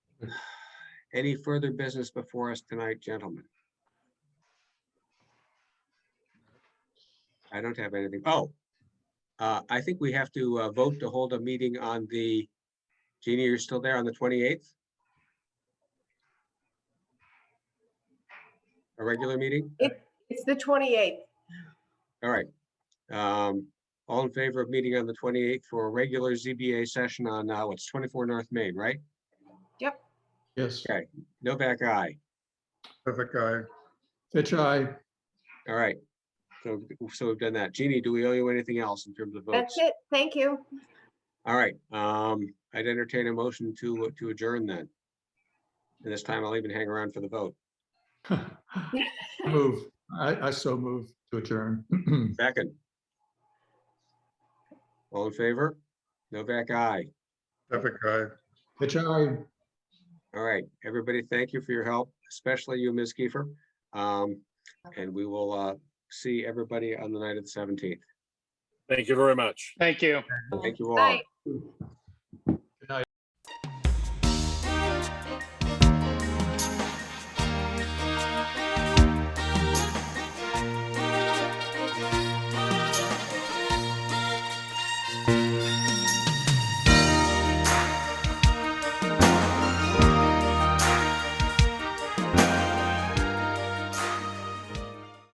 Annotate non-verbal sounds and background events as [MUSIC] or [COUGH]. Any further business before us tonight, gentlemen? I don't have anything. Oh. Uh, I think we have to uh, vote to hold a meeting on the, Jeannie, you're still there on the twenty-eighth? A regular meeting? It's the 28th. All right. Um, all in favor of meeting on the twenty-eighth for a regular ZBA session on, uh, what's twenty-four North Main, right? Yes, Okay. Novak, aye. Perfect guy. Fitch, aye. All right. So, so we've done that. Jeannie, do we owe you anything else in terms of votes? That's it. Thank you. All right, um, I'd entertain a motion to, to adjourn then. And this time I'll even hang around for the vote. Move. I, I so move to adjourn. [CLEARS THROAT] Second. All in favor? Novak, aye. Perfect guy. Fitch, aye. All right, everybody, thank you for your help, especially you, Ms. Kiefer. Um, and we will, uh, see everybody on the night of the seventeenth. Thank you very much. Thank you. Thank you all. Bye.